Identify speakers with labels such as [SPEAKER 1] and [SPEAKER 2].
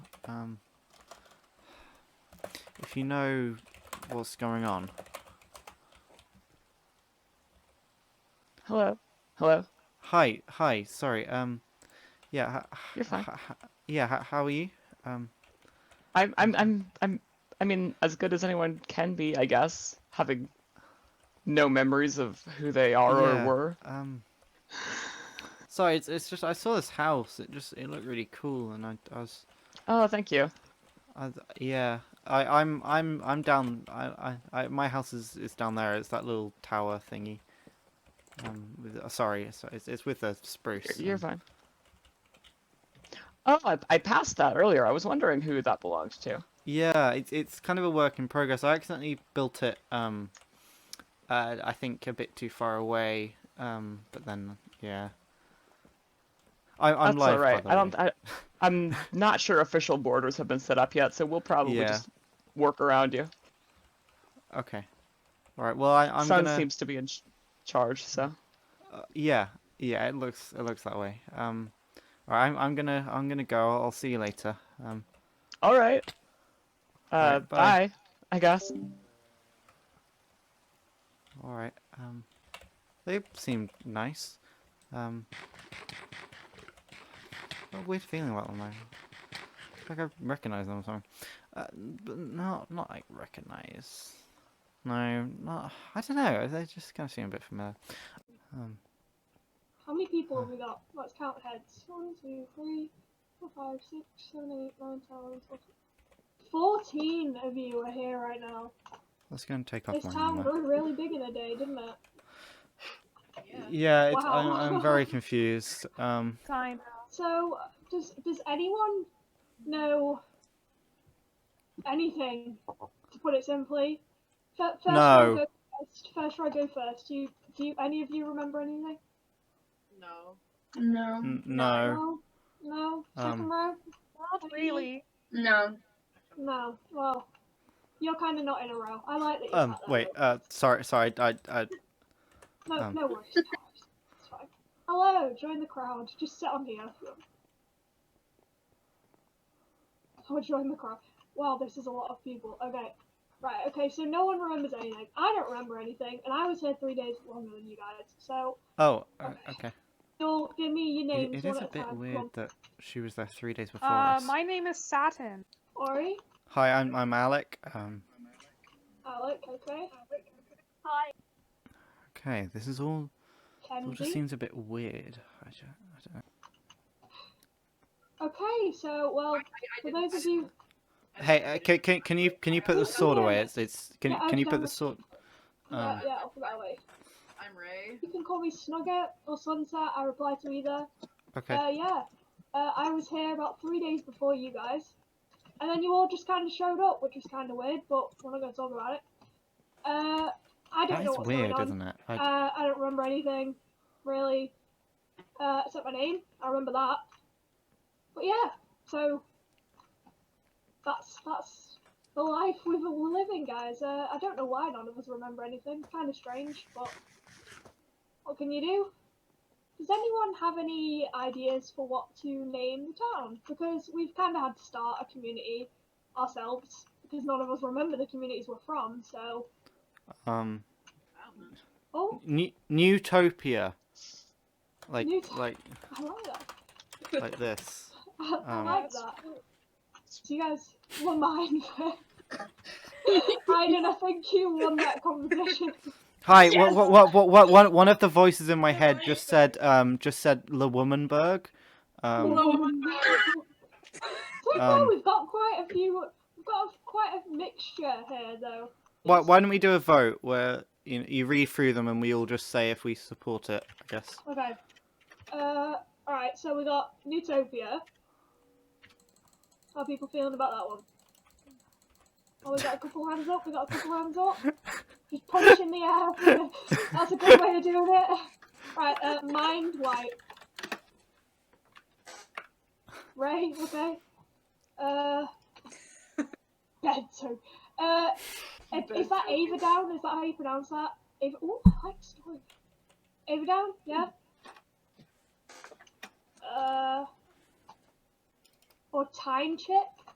[SPEAKER 1] Um, if you know what's going on,
[SPEAKER 2] Hello. Hello.
[SPEAKER 1] hi, hi, sorry. Um, yeah, h- h-
[SPEAKER 2] You're fine.
[SPEAKER 1] h- h- yeah, h- how are you? Um,
[SPEAKER 2] I'm I'm I'm I'm I mean, as good as anyone can be, I guess, having no memories of who they are
[SPEAKER 1] Yeah.
[SPEAKER 2] or were.
[SPEAKER 1] um. Sorry, it's it's just I saw this house. It just it looked really cool, and I, I was
[SPEAKER 2] Oh, thank you.
[SPEAKER 1] I, th- yeah, I, I'm I'm I'm down. I, I, I my house is, is down there. It's that little tower thingy. Um, with, uh, sorry, it's, it's it's with a spruce.
[SPEAKER 2] You're
[SPEAKER 1] and-
[SPEAKER 2] fine. Oh, I, I passed that earlier. I was wondering who that belonged to.
[SPEAKER 1] Yeah, it's it's kind of a work in progress. I accidentally built it. Um, uh, I think a bit too far away. Um, but then yeah. I, I'm
[SPEAKER 2] That's
[SPEAKER 1] live.
[SPEAKER 2] all
[SPEAKER 1] by
[SPEAKER 2] right.
[SPEAKER 1] the
[SPEAKER 2] I don't.
[SPEAKER 1] way.
[SPEAKER 2] I, I'm not sure official borders have been set up yet, so we'll probably
[SPEAKER 1] Yeah.
[SPEAKER 2] just work around you.
[SPEAKER 1] Okay. All right. Well, I, I'm
[SPEAKER 2] Sun
[SPEAKER 1] gonna.
[SPEAKER 2] seems to be in ch- charge, so
[SPEAKER 1] Uh, yeah, yeah, it looks it looks that way. Um, all right, I'm I'm gonna I'm gonna go. I'll, I'll see you later. Um,
[SPEAKER 2] all right. Uh,
[SPEAKER 1] All right,
[SPEAKER 2] bye.
[SPEAKER 1] bye.
[SPEAKER 2] I guess.
[SPEAKER 1] all right. Um, they seem nice. Um, got a weird feeling about them. though. Like I recognize them or something. Uh, but not not like recognize. No, not. I don't know. They just kind of seem a bit familiar. Um,
[SPEAKER 3] How many people
[SPEAKER 1] Huh.
[SPEAKER 3] have we got? Let's count heads. One, two, three, four, five, six, seven, eight, nine, ten, eleven, twelve. Fourteen of you are here right now.
[SPEAKER 1] let's go and take off
[SPEAKER 3] This
[SPEAKER 1] my
[SPEAKER 3] town
[SPEAKER 1] armor.
[SPEAKER 3] grew really big in a day, didn't it?
[SPEAKER 1] Yeah, it's, I'm,
[SPEAKER 3] Wow.
[SPEAKER 1] I'm very confused. Um.
[SPEAKER 4] Time.
[SPEAKER 3] So, does does anyone know anything? To put it simply, Fir- first row
[SPEAKER 1] No.
[SPEAKER 3] go first. First row go first. Do you, do you, any of you remember anything?
[SPEAKER 4] No.
[SPEAKER 5] No,
[SPEAKER 1] N- no.
[SPEAKER 3] No. No. Second
[SPEAKER 1] Um,
[SPEAKER 3] row.
[SPEAKER 4] Not really.
[SPEAKER 5] no.
[SPEAKER 3] No. Well, you're kind of not in a row. I like that. You're
[SPEAKER 1] Um.
[SPEAKER 3] not there.
[SPEAKER 1] Wait. Uh. Sorry. Sorry. I. I.
[SPEAKER 3] No,
[SPEAKER 1] Um.
[SPEAKER 3] no worries. no worries. It's fine. Hello, join the crowd. Just sit on here. Oh, join the crowd. Wow, this is a lot of people. Okay. Right, okay, so no one remembers anything. I don't remember anything, and I was here three days longer than you guys. So,
[SPEAKER 1] Oh. Uh, okay.
[SPEAKER 3] you'll give me your
[SPEAKER 1] It,
[SPEAKER 3] names
[SPEAKER 1] it
[SPEAKER 3] one
[SPEAKER 1] is
[SPEAKER 3] at
[SPEAKER 1] a
[SPEAKER 3] a time.
[SPEAKER 1] bit
[SPEAKER 3] Come
[SPEAKER 1] weird
[SPEAKER 3] on.
[SPEAKER 1] that she was there three days before
[SPEAKER 4] Uh,
[SPEAKER 1] us.
[SPEAKER 4] my name is Satin.
[SPEAKER 3] Ori,
[SPEAKER 1] Hi. I'm. I'm Alec. Um.
[SPEAKER 3] Alec, okay.
[SPEAKER 4] Hi.
[SPEAKER 1] Okay. This is all. It all just
[SPEAKER 3] Kenzie.
[SPEAKER 1] seems a bit weird. I ju- I don't know.
[SPEAKER 3] Okay, so, well, for those of you.
[SPEAKER 1] Hey. Uh, can, can Can you Can you put the sword away? It's. It's. Can
[SPEAKER 3] Yeah, I've
[SPEAKER 1] Can you put
[SPEAKER 3] done
[SPEAKER 1] the
[SPEAKER 3] Uh, it.
[SPEAKER 1] sword?
[SPEAKER 3] yeah,
[SPEAKER 1] Um.
[SPEAKER 3] yeah, I'll put that away.
[SPEAKER 6] I'm Ray.
[SPEAKER 3] You can call me Snugget or Sunset, I reply to either.
[SPEAKER 1] Okay.
[SPEAKER 3] Uh, yeah. Uh, I was here about three days before you guys. And then you all just kind of showed up, which was kind of weird, but we're not going to talk about it. Uh, I don't
[SPEAKER 1] That
[SPEAKER 3] know
[SPEAKER 1] is
[SPEAKER 3] what's
[SPEAKER 1] weird,
[SPEAKER 3] going on.
[SPEAKER 1] isn't it? I,
[SPEAKER 3] Uh, I don't remember anything, really. Uh, except my name. I remember that. But yeah, so that's that's the life we've been living, guys. Uh, I don't know why none of us remember anything. Kind of strange, but what can you do? Does anyone have any ideas for what to name the town? Because we've kind of had to start a community ourselves because none of us remember the communities we're from. So, Uh,
[SPEAKER 1] um.
[SPEAKER 3] oh,
[SPEAKER 1] New, Newtopia. Like.
[SPEAKER 3] Newt-
[SPEAKER 1] Like.
[SPEAKER 3] I like that.
[SPEAKER 1] Like this.
[SPEAKER 3] I,
[SPEAKER 1] Um,
[SPEAKER 3] I like that. So you guys won mine. I didn't think you won that competition.
[SPEAKER 1] Hi, what, what, what, what, what, one, one of the voices in my head just said, um, just said Le Womanberg. Um,
[SPEAKER 3] So far
[SPEAKER 1] Um,
[SPEAKER 3] we've got quite a few. We've got a, quite a mixture here, though.
[SPEAKER 1] why,
[SPEAKER 3] It's-
[SPEAKER 1] why don't we do a vote where you, know, you read through them and we all just say if we support it, I guess.
[SPEAKER 3] Okay. Uh, all right. So we got Newtopia. How are people feeling about that one? Oh, we got a couple hands up. We got a couple hands up. Just punch in the air. That's a good way of doing it. Right. Uh, mind white. Ray. Okay. Uh. Bento. Uh, is, is that Ava down? Is that how you pronounce that? Ava. Oh, I like story. Ava down? Yeah. Uh, or time chip?